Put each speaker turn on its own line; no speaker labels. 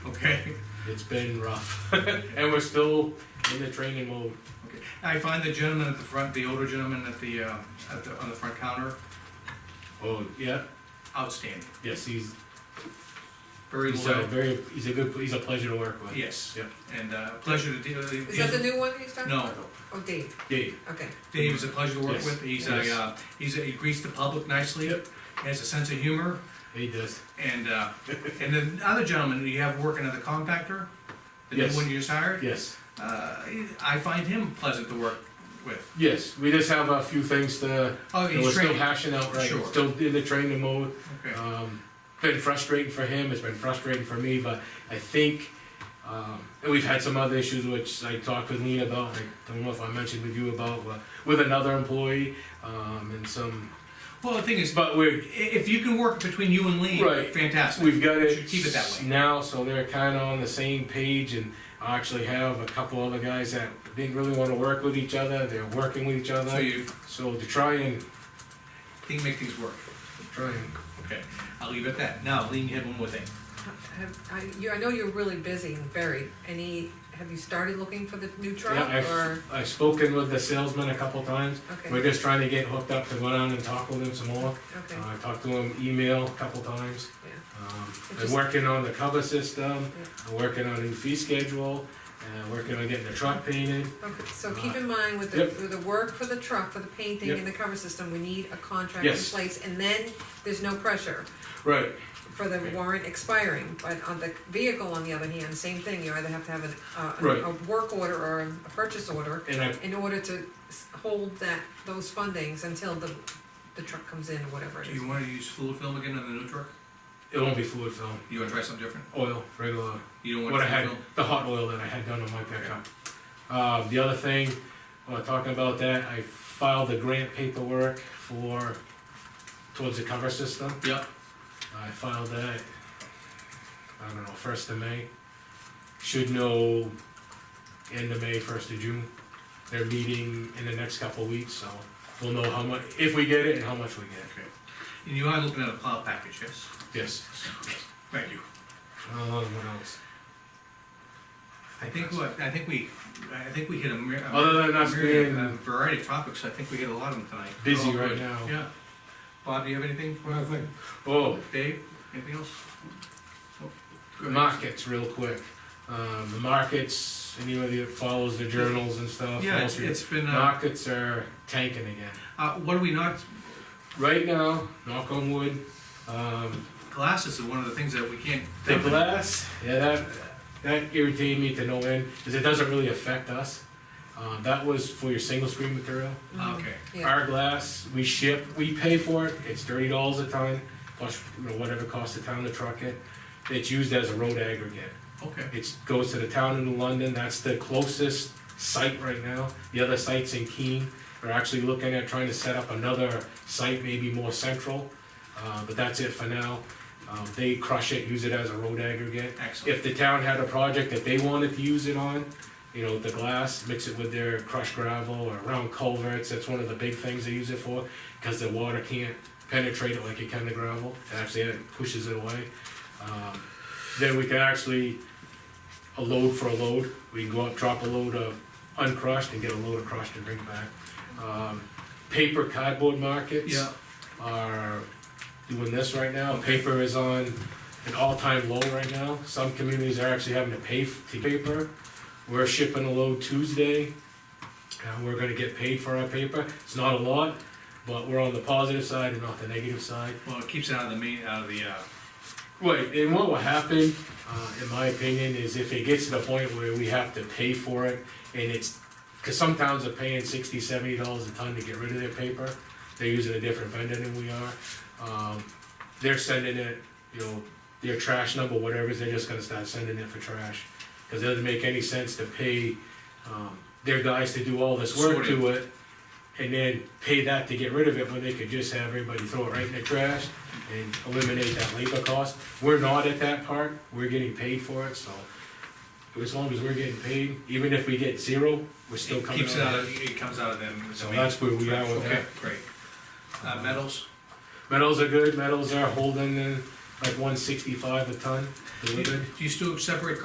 okay?
It's been rough.
And we're still in the training mode.
I find the gentleman at the front, the older gentleman at the, uh, at the, on the front counter,
Oh, yeah,
outstanding,
yes, he's,
very
he's uh, a
loyal.
very, he's a good, he's a pleasure to work with.
Yes,
Yep.
and uh, pleasure to deal
Is that the
with.
new one he's talking
No.
about? Oh, Dave,
Dave,
okay.
Dave is a pleasure to work
Yes.
with, he's a,
Yes.
uh, he's a, he greets the public nicely,
Yep.
has a sense of humor,
he does.
and, uh, and the other gentleman you have working at the compactor, the new
Yes.
one you just hired,
Yes,
uh, I find him pleasant to work with.
yes, we just have a few things to,
Oh,
that we're
he's
still
trained,
hashing out, right,
Sure.
still in the training mode.
okay.
Um, been frustrating for him, it's been frustrating for me, but I think, um, and we've had some other issues which I talked with Lean about, I don't know if I mentioned with you about, but with another employee, um, and some,
Well, the thing is, i-
but we're,
if you can work between you and Lee,
Right.
fantastic.
we've got it
Should keep it that way.
now, so they're kinda on the same page, and I actually have a couple other guys that didn't really wanna work with each other, they're working with each
So
other,
you
so to try and,
think, make things work.
try and
Okay, I'll leave it at that. Now, Lean, you have one more thing.
Have, I, you, I know you're really busy and buried. Any, have you started looking for the new
Yeah,
truck or?
I've, I've spoken with the salesman a couple times.
Okay.
We're just trying to get hooked up to go down and talk with him some more.
Okay,
Uh, I talked to him email a couple times.
yeah.
Um,
It
I'm
just-
working on the cover system,
Yeah.
I'm working on a new fee schedule, and working on getting the truck painted.
Okay, so keep in mind with the,
uh, Yep.
with the work for the truck, for the painting
Yep.
and the cover system, we need a contract in
Yes.
place. And then there's no pressure
Right.
for the
Right.
warrant expiring. But on the vehicle, on the other hand, same thing. You either have to have an, uh, an-
Right.
a work order or a purchase order
And I,
in order to s- hold that, those fundings until the, the truck comes in, or whatever it
Do
is.
you wanna use fluid film again on the new truck?
it won't be fluid film,
You wanna try something different?
oil, regular
You don't want
what I
fluid
had,
film?
the hot oil that I had done on my pickup. Um, the other thing, while talking about that, I filed the grant paperwork for, towards the cover system.
Yep,
I filed that, I don't know, first of May. Should know end of May, first of June. They're meeting in the next couple of weeks, so we'll know how much, if we get it and how much we get.
and you are looking at a plow package, yes?
Yes.
Thank you.
Um, what else?
I think, what- I think we, I think we hit a myriad.
Other than us being-
A variety of topics, I think we hit a lot of them tonight.
Busy
They're all
right
good.
now.
Yeah. Bob, do you have anything for
Nothing.
Oh,
Dave? Anything else? Nope. Go ahead.
markets real quick. Um, the markets, anybody that follows the journals and stuff.
Yeah,
Wall
it's,
Street,
it's been, uh,
Markets are tanking again.
uh, what are we not,
Right now, knock on wood, um,
glasses are one of the things that we can't.
the glass, yeah, that, that irritated me to no end, cause it doesn't really affect us. Um, that was for your single screen material.
Okay.
Yeah,
Our glass, we ship, we pay for it, it's thirty dollars a ton, plus, you know, whatever it costs the town to truck it. It's used as a road aggregate.
Okay.
It goes to the town in London, that's the closest site right now. The other site's in Keene. We're actually looking at trying to set up another site, maybe more central, uh, but that's it for now. Um, They crush it, use it as a road aggregate.
Excellent.
If the town had a project that they wanted to use it on, you know, the glass, mix it with their crushed gravel or round culverts, that's one of the big things they use it for, because the water can't penetrate it like it can the gravel, it actually it pushes it away. Um, Then we can actually, a load for a load, we can go up, drop a load of uncrushed and get a load of crushed and bring it back. Um, Paper cardboard markets
Yeah,
are doing this right now. Paper is on an all-time low right now. Some communities are actually having to pay for paper. We're shipping a load Tuesday, and we're gonna get paid for our paper. It's not a lot, but we're on the positive side and not the negative side.
well, it keeps it out of the main, out of the, uh,
Right, and what will happen, uh, in my opinion, is if it gets to the point where we have to pay for it, and it's, cause some towns are paying sixty, seventy dollars a ton to get rid of their paper, they're using a different vendor than we are. Um, they're sending it, you know, their trash number, whatever, it is, they're just gonna start sending it for trash. Cause it doesn't make any sense to pay, um, their guys to do all this work to it, and then pay that to get rid of it, when they could just have everybody throw it right in the trash and eliminate that labor cost. We're not at that part, we're getting paid for it, so as long as we're getting paid, even if we get zero, we're still
it
coming
keeps it out
out.
of, it comes out of them. the
So
main-
that's where we are with
Okay,
that.
great. Uh, metals,
Metals are good, metals are holding, and like one sixty-five a ton
Do you-
delivered.
do you still separate